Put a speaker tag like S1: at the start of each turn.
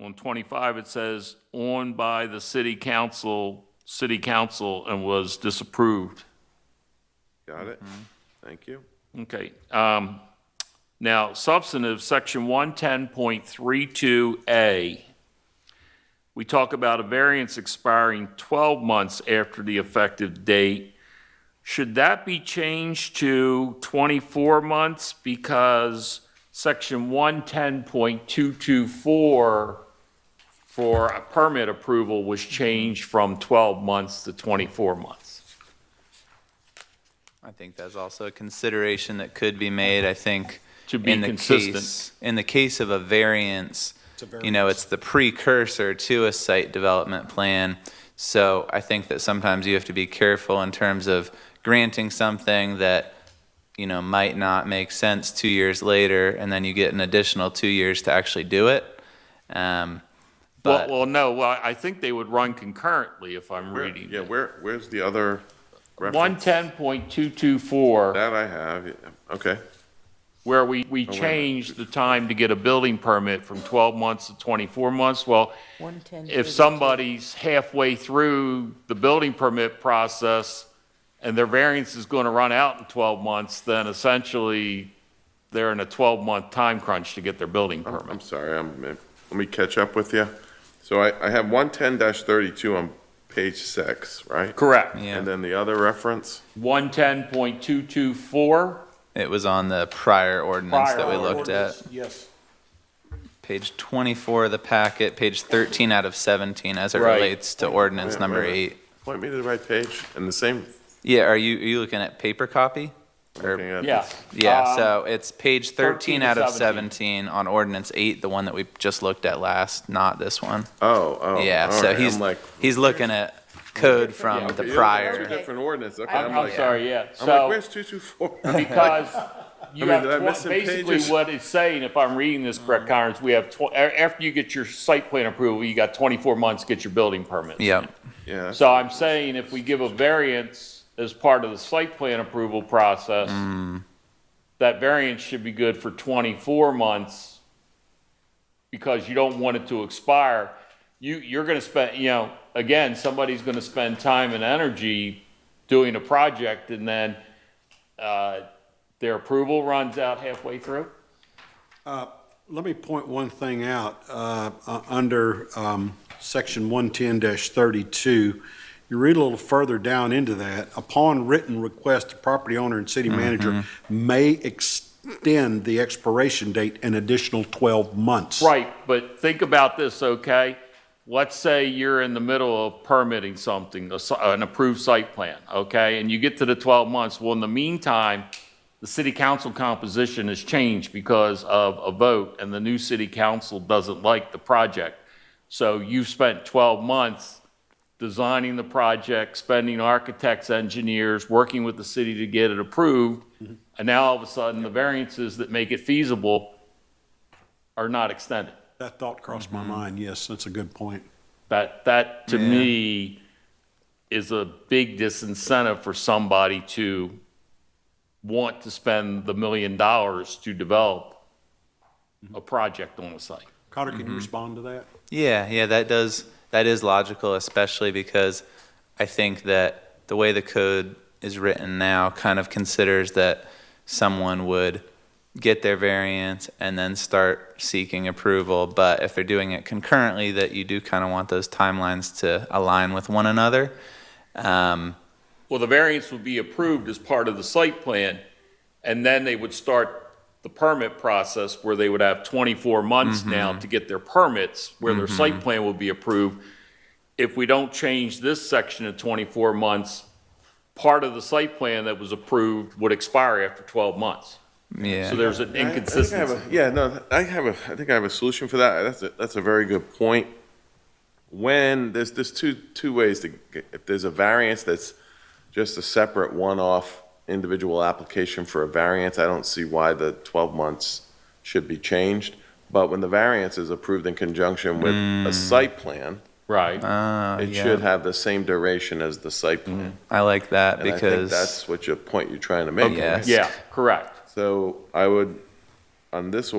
S1: on twenty-five, it says, on by the city council, city council, and was disapproved.
S2: Got it?
S1: Mm-hmm.
S2: Thank you.
S1: Okay, um, now substantive, section one ten point three two A. We talk about a variance expiring twelve months after the effective date. Should that be changed to twenty-four months? Because section one ten point two two four for a permit approval was changed from twelve months to twenty-four months.
S3: I think that's also a consideration that could be made, I think.
S1: To be
S3: in the
S1: consistent.
S3: case- In the case of a variance, you know, it's the precursor to a site development plan. So I think that sometimes you have to be careful in terms of granting something that, you know, might not make sense two years later, and then you get an additional two years to actually do it. Um,
S1: Well,
S3: But,
S1: well, no, well, I think they would run concurrently if I'm
S2: Where-
S1: reading.
S2: Yeah, where, where's the other
S1: One
S2: reference?
S1: ten point two two four,
S2: That I have, yeah, okay.
S1: where we, we
S2: minute.
S1: changed the time to get a building permit from twelve months to twenty-four months. Well, if somebody's halfway through the building permit process and their variance is going to run out in twelve months, then essentially they're in a twelve-month time crunch to get their building permit.
S2: I'm sorry, I'm, uh, let me catch up with you. So I, I have one ten thirty-two on page six, right?
S1: Correct.
S3: yeah,
S2: And then the other reference?
S1: One ten point two two four.
S3: it was on the prior ordinance that we
S4: Prior
S3: looked at.
S4: ordinance, Yes.
S3: Page 24 of the packet, page 13 out of 17 as it
S1: Right.
S3: relates to ordinance
S2: Wait,
S3: number
S2: wait, wait.
S3: eight.
S2: Point me to the right page, and the same,
S3: Yeah, are you, are you looking at paper copy? Or-
S2: looking at
S1: Yeah.
S2: this.
S3: Yeah,
S1: Um,
S3: so it's page
S1: 13
S3: 13
S1: to
S3: out of
S1: 17.
S3: 17 on ordinance eight, the one that we just looked at last, not this one.
S2: Oh, oh.
S3: Yeah,
S2: all
S3: so
S2: right,
S3: he's,
S2: I'm like.
S3: he's looking at code
S2: okay,
S3: from the
S2: yeah, Two
S3: prior.
S2: different ordinance, okay,
S1: I'm,
S2: I'm
S1: I'm
S2: like,
S1: sorry, yeah.
S2: I'm like,
S1: So.
S2: where's two two four?
S1: because you
S2: mean,
S1: have,
S2: did I
S1: twen-
S2: miss some
S1: basically
S2: pages?
S1: what it's saying, if I'm reading this correct, Connors, we have, tw- a- after you get your site plan approval, you got 24 months to get your building permit.
S3: Yep,
S2: Yeah,
S1: So I'm saying if we give a variance as part of the site plan approval process, that variance should be good for 24 months because you don't want it to expire. You, you're going to spend, you know, again, somebody's going to spend time and energy doing a project and then uh, their approval runs out halfway through.
S4: Let me point one thing out. uh, uh, Under um, section 110-32, you read a little further down into that, upon written request, the property owner and city manager may extend the expiration date an additional 12 months.
S1: Right, but think about this, okay? Let's say you're in the middle of permitting something, a si- an approved site plan, okay? And you get to the 12 months. Well, in the meantime, the city council composition has changed because of a vote, and the new city council doesn't like the project. So you've spent 12 months designing the project, spending architects, engineers, working with the city to get it approved, and now all of a sudden, the variances that make it feasible are not extended.
S4: That thought crossed my mind, yes, that's a good point.
S1: That, that to me is a big disincentive for somebody to want to spend the million dollars to develop a project on a site.
S4: Cotter, can you respond to that?
S3: yeah, yeah, that does, that is logical, especially because I think that the way the code is written now kind of considers that someone would get their variance and then start seeking approval. But if they're doing it concurrently, that you do kind of want those timelines to align with one another. Um,
S1: Well, the variance would be approved as part of the site plan, and then they would start the permit process where they would have 24 months now to get their permits, where their site plan will be approved. If we don't change this section of 24 months, part of the site plan that was approved would expire after 12 months.
S3: yeah.
S1: So there's an
S2: I- I think I have a-
S1: inconsistency.
S2: Yeah, no, I have a, I think I have a solution for that. That's a, that's a very good point. When, there's, there's two, two ways to, get- if there's a variance that's just a separate one-off individual application for a variance, I don't see why the 12 months should be changed. But when the variance is approved in conjunction with a site plan,
S1: Right.
S3: Ah,
S2: it
S3: Mm. yeah.
S2: should have the same duration as the site plan.
S3: I like that
S2: And I think
S3: because
S2: that's what your point you're trying to make.
S3: Yes.
S1: Yeah, correct.
S2: So I would, on this